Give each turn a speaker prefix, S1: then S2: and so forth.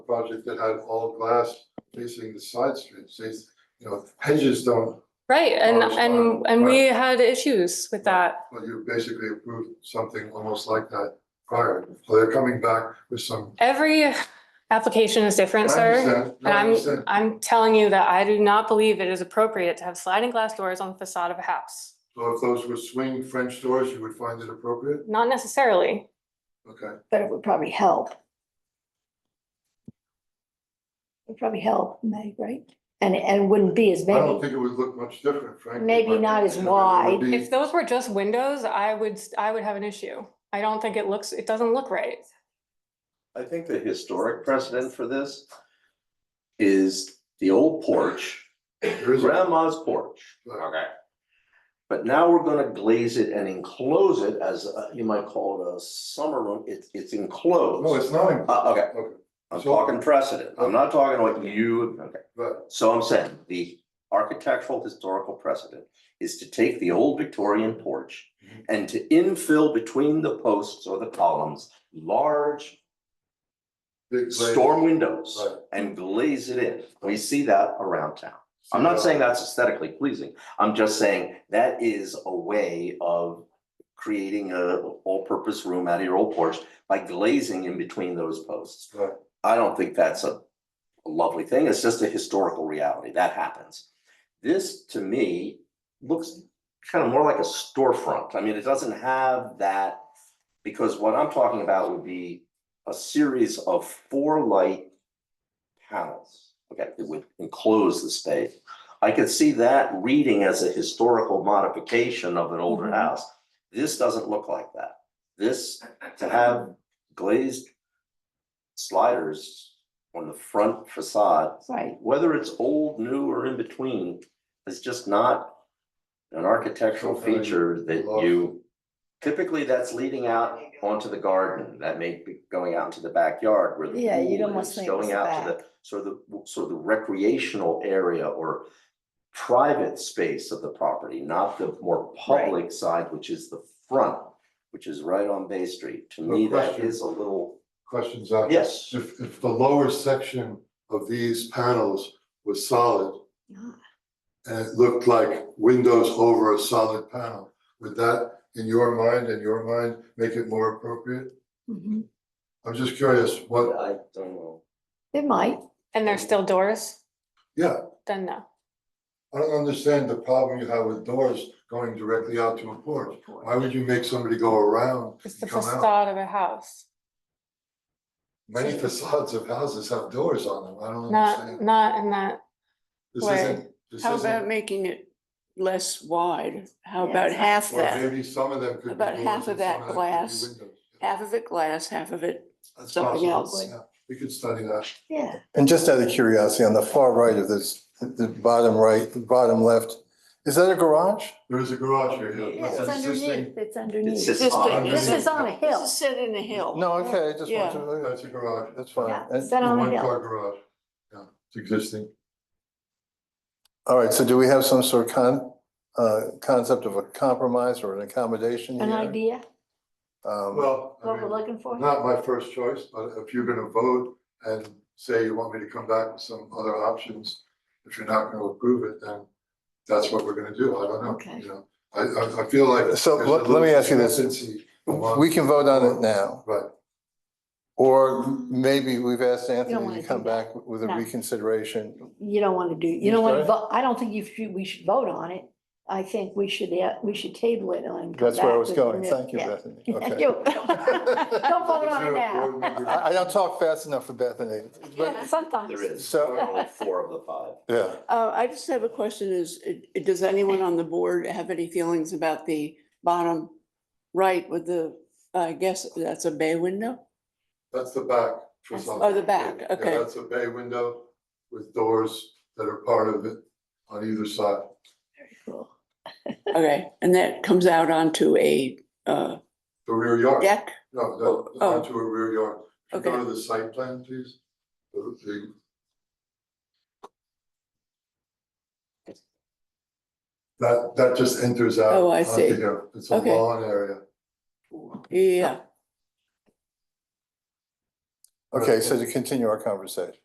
S1: project that had all glass facing the side streets, these, you know, hedges don't,
S2: Right, and,
S1: Ours
S2: and,
S1: are-
S2: and we had issues with that.
S1: well, you basically approved something almost like that prior. So they're coming back with some.
S2: Every application is
S1: I
S2: different, sir.
S1: understand, no,
S2: And
S1: I
S2: I'm,
S1: understand.
S2: I'm telling you that I do not believe it is appropriate to have sliding glass doors on the facade of a house.
S1: So if those were swing French doors, you would find it appropriate?
S2: Not necessarily.
S1: Okay,
S3: but it would probably help. It'd probably help, Meg, right? And, and wouldn't be as
S1: I don't
S3: many,
S1: think it would look much different, frankly.
S3: Maybe
S1: but,
S3: not as
S1: you know, it would
S3: wide.
S1: be-
S2: If those were just windows, I would, I would have an issue. I don't think it looks, it doesn't look right.
S4: I think the historic precedent for this is the old porch,
S1: There is a-
S4: grandma's porch. Okay. But now we're gonna glaze it and enclose it as, uh, you might call it a summer room, it's, it's
S1: No,
S4: enclosed.
S1: it's not, in-
S4: Uh, okay,
S1: okay,
S4: I'm
S1: So-
S4: talking precedent, I'm not talking like you, okay.
S1: but
S4: So I'm saying the architectural historical precedent is to take the old Victorian porch
S1: Mhm.
S4: and to infill between the posts or the columns, large
S1: big glaze-
S4: storm windows
S1: Right.
S4: and glaze it in. We see that around town. I'm not saying that's aesthetically pleasing. I'm just saying that is a way of creating a all-purpose room out of your old porch by glazing in between those posts.
S1: Right.
S4: I don't think that's a lovely thing. It's just a historical reality. That happens. This, to me, looks kind of more like a storefront. I mean, it doesn't have that, because what I'm talking about would be a series of four light panels. Okay, that would enclose the space. I could see that reading as a historical modification of an older
S2: Mhm.
S4: house. This doesn't look like that. This, to have glazed sliders on the front facade
S3: right?
S4: whether it's old, new, or in between, is just not an architectural
S1: Something
S4: feature that
S1: lost.
S4: you, typically that's leading out onto the garden, that may be going out into the backyard where the
S3: Yeah, you'd
S4: pool
S3: almost
S4: is,
S3: think
S4: going
S3: it's
S4: out to the, sort of the, sort of the recreational area or private space of the property, not the more
S3: Right.
S4: public side, which is the front, which is right on Bay Street. To
S1: No
S4: me, that
S1: question.
S4: is a little,
S1: Questions on.
S4: yes,
S1: If, if the lower section of these panels was solid
S3: Ah.
S1: and it looked like windows over a solid panel, would that, in your mind, in your mind, make it more appropriate?
S3: Mhm.
S1: I'm just curious, what,
S4: I don't know.
S3: It might,
S2: And there's still doors,
S1: yeah,
S2: then no.
S1: I don't understand the problem you have with doors going directly out to a porch. Why would you make somebody go around
S2: It's the
S1: and come out?
S2: facade of a house,
S1: Many facades of houses have doors on them, I don't
S2: not,
S1: understand.
S2: not in that,
S1: This
S2: way.
S1: isn't, this
S5: How about
S1: isn't,
S5: making it less wide? How
S3: Yeah,
S5: about
S3: it's-
S5: half
S1: or
S5: that?
S1: maybe some of them could be
S5: About
S1: doors
S5: half
S1: and
S5: of that
S1: some could be
S5: glass.
S1: windows.
S5: Half of it glass, half of it,
S1: That's
S5: something
S1: possible,
S5: else.
S1: yeah. We could study that.
S3: yeah.
S6: And just out of curiosity, on the far right of this, the bottom right, bottom left, is that a garage?
S1: There is a garage here, yeah.
S4: Yeah,
S3: It's
S1: That's an existing-
S3: underneath, it's underneath.
S4: just
S3: This
S4: on-
S3: is on a
S5: this
S3: hill.
S5: is set in a hill.
S6: No, okay, I just want to,
S1: Oh, That's a garage.
S6: that's fine.
S3: Yeah,
S6: And-
S3: it's on a
S1: One
S3: hill.
S1: car garage. Yeah, it's existing.
S6: All right, so do we have some sort of con, uh, concept of a compromise or an accommodation
S3: An
S6: here?
S3: idea,
S6: Um,
S1: Well, I
S3: what we're
S1: mean,
S3: looking for?
S1: not my first choice, but if you're gonna vote and say you want me to come back with some other options, if you're not gonna approve it, then that's what we're gonna do. I don't know.
S3: Okay.
S1: You know, I, I, I feel like.
S6: So,
S1: there's a
S6: let- let me
S1: little
S6: ask you this.
S1: consistency among-
S6: We can vote on it now,
S1: Right,
S6: or maybe we've asked
S3: wanna
S6: Anthony to
S3: do
S6: come
S3: that.
S6: back with a
S3: No.
S6: reconsideration.
S3: You don't want to do, you don't want to
S6: Okay.
S3: vote, I don't think you should, we should vote on it. I think we should, yeah, we should table it and come
S6: That's where I
S3: back
S6: was
S3: with
S6: going.
S3: new-
S6: Thank you,
S3: yeah.
S6: Bethany.
S3: Thank
S6: Okay.
S3: you. Don't vote on it now.
S6: I, I don't talk fast enough for Bethany, but,
S3: Sometimes.
S4: There is,
S6: So-
S4: only four of the five.
S6: yeah.
S5: Uh, I just have a question is, it- it- does anyone on the board have any feelings about the bottom right with the, I guess that's a bay window?
S1: That's the back for
S3: That's-
S1: some.
S5: oh, the back,
S1: Yeah,
S5: okay.
S1: That's a bay window with doors that are part of it on either side.
S3: Cool.
S5: Okay, and that comes out onto a, uh,
S1: The rear yard,
S5: deck?
S1: no,
S5: Oh,
S1: that,
S5: oh.
S1: onto a rear yard. If you Go
S5: Okay.
S1: to the site plan, please. The- the- That, that just enters out.
S5: Oh, I
S1: onto
S5: see.
S1: here. It's a
S5: Okay.
S1: lawn area.
S5: Yeah,
S6: Okay, so to continue our conversation.